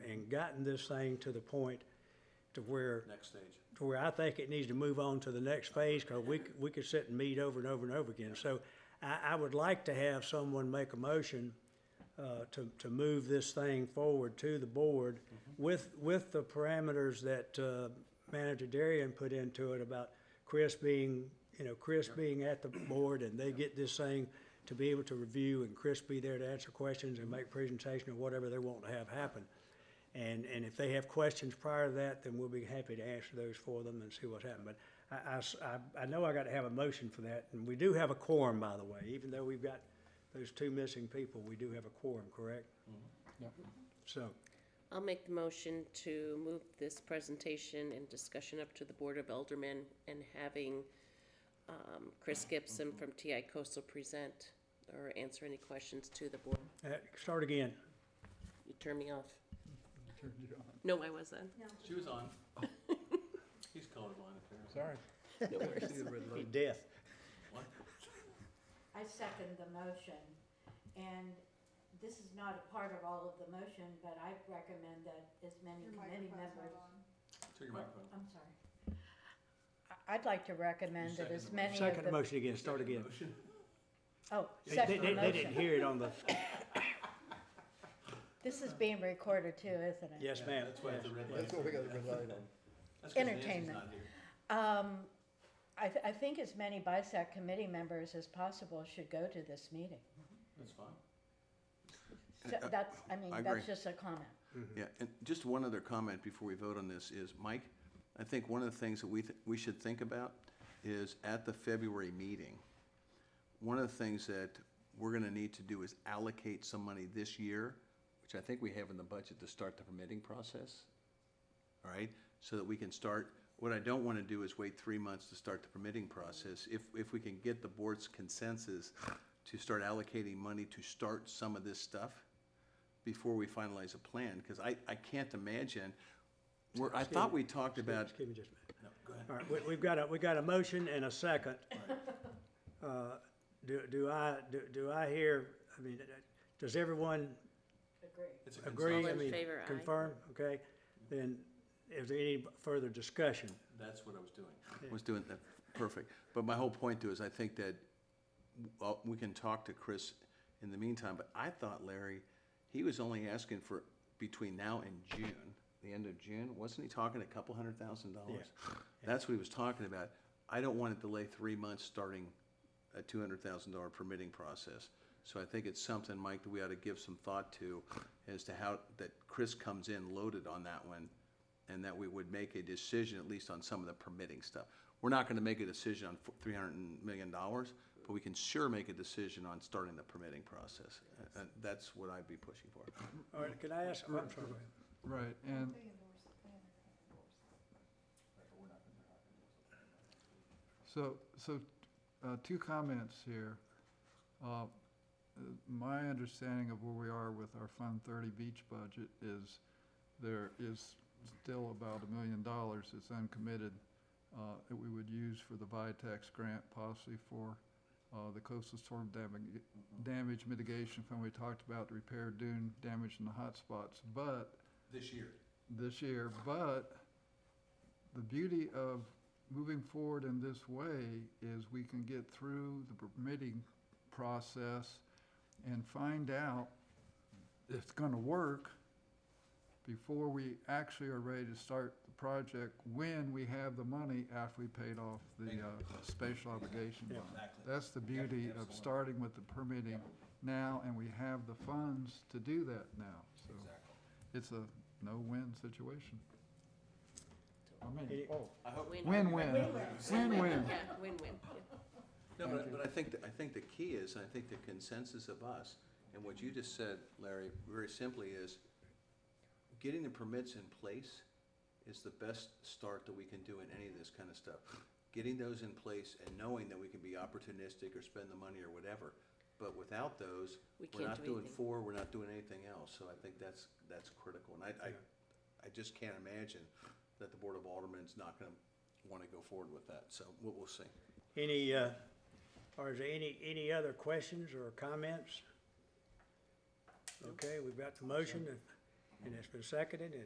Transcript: gotten this thing to the point to where, next stage. to where I think it needs to move on to the next phase, because we, c- we could sit and meet over and over and over again. So I, I would like to have someone make a motion uh, to, to move this thing forward to the board with, with the parameters that uh, Manager Darian put into it about Chris being, you know, Chris being at the board and they get this thing to be able to review and Chris be there to answer questions and make presentation or whatever they want to have happen. And, and if they have questions prior to that, then we'll be happy to answer those for them and see what's happened. But I- I, s- I- I know I got to have a motion for that, and we do have a quorum, by the way, even though we've got those two missing people, we do have a quorum, correct? Mm-hmm. So, I'll make the motion to move this presentation and discussion up to the Board of Aldermen and having um, Chris Gibson from TI Coastal present or answer any questions to the board. uh, start again. You turned me off. No, I wasn't. She was on. He's colorblind apparently. Sorry. No worries. Death. What? I second the motion, and this is not a part of all of the motion, but I recommend that as many committee members. Took your microphone. I'm sorry. I- I'd like to recommend that as Second many of Second the. motion again, start again. Motion. Oh, They, they- second they- they didn't motion. hear it on the, This is being recorded too, isn't it? yes, ma'am. That's why it's a yes. red light. That's what we got the red light on. That's 'cause Nancy's Entertainment. not here. Um, I, th- I think as many BISAC committee members as possible should go to this meeting. That's fine. So that's, I mean, I that's agree. just a comment. Yeah, and just one other comment before we vote on this is, Mike, I think one of the things that we, th- we should think about is at the February meeting, one of the things that we're gonna need to do is allocate some money this year, which I think we have in the budget to start the permitting process, all right? So that we can start, what I don't wanna do is wait three months to start the permitting process. If, if we can get the board's consensus to start allocating money to start some of this stuff, before we finalize a plan, because I, I can't imagine, where, I thought we talked about, Excuse me just a minute. No, go ahead. All right, we, we've got a, we got a motion and a second. Uh, Do, do I, do, do I hear, I mean, does everyone Agree. It's a agree? consent. All I in mean, favor, aye. Confirm, okay? Then is there any further discussion? That's what I was doing. was doing that, perfect. But my whole point too is I think that, well, we can talk to Chris in the meantime, but I thought Larry, he was only asking for between now and June, the end of June, wasn't he talking a couple hundred thousand dollars? That's what he was talking about. I don't want to delay three months starting a two hundred thousand dollar permitting process. So I think it's something, Mike, that we ought to give some thought to as to how, that Chris comes in loaded on that one and that we would make a decision at least on some of the permitting stuff. We're not gonna make a decision on three hundred million dollars, but we can sure make a decision on starting the permitting process. And that's what I'd be pushing for. All right, can I ask, I'm sorry. Right, and so, so, uh, two comments here. Uh, uh, My understanding of where we are with our Fund Thirty beach budget is there is still about a million dollars that's uncommitted uh, that we would use for the VITAX grant possibly for uh, the coastal storm damage, damage mitigation fund. We talked about to repair dune damage in the hotspots, but This year. this year, but the beauty of moving forward in this way is we can get through the permitting process and find out if it's gonna work before we actually are ready to start the project, when we have the money after we paid off the, uh, spatial obligation bond. Exactly. That's the beauty of starting with the permitting now, and we have the funds to do that now, so Exactly. it's a no-win situation. I mean, It- oh, I hope. win-win, win-win. Yeah, win-win. yeah. No, but, but I think, that- I think the key is, I think the consensus of us, and what you just said, Larry, very simply is getting the permits in place is the best start that we can do in any of this kind of stuff. Getting those in place and knowing that we can be opportunistic or spend the money or whatever, but without those, We we're can't not do doing anything. four, we're not doing anything else, so I think that's, that's critical. And I, I, I just can't imagine that the Board of Aldermen's not gonna wanna go forward with that, so we'll, we'll see. Any, uh, or is there any, any other questions or comments? Okay, we've got the motion, and- and it's been seconded,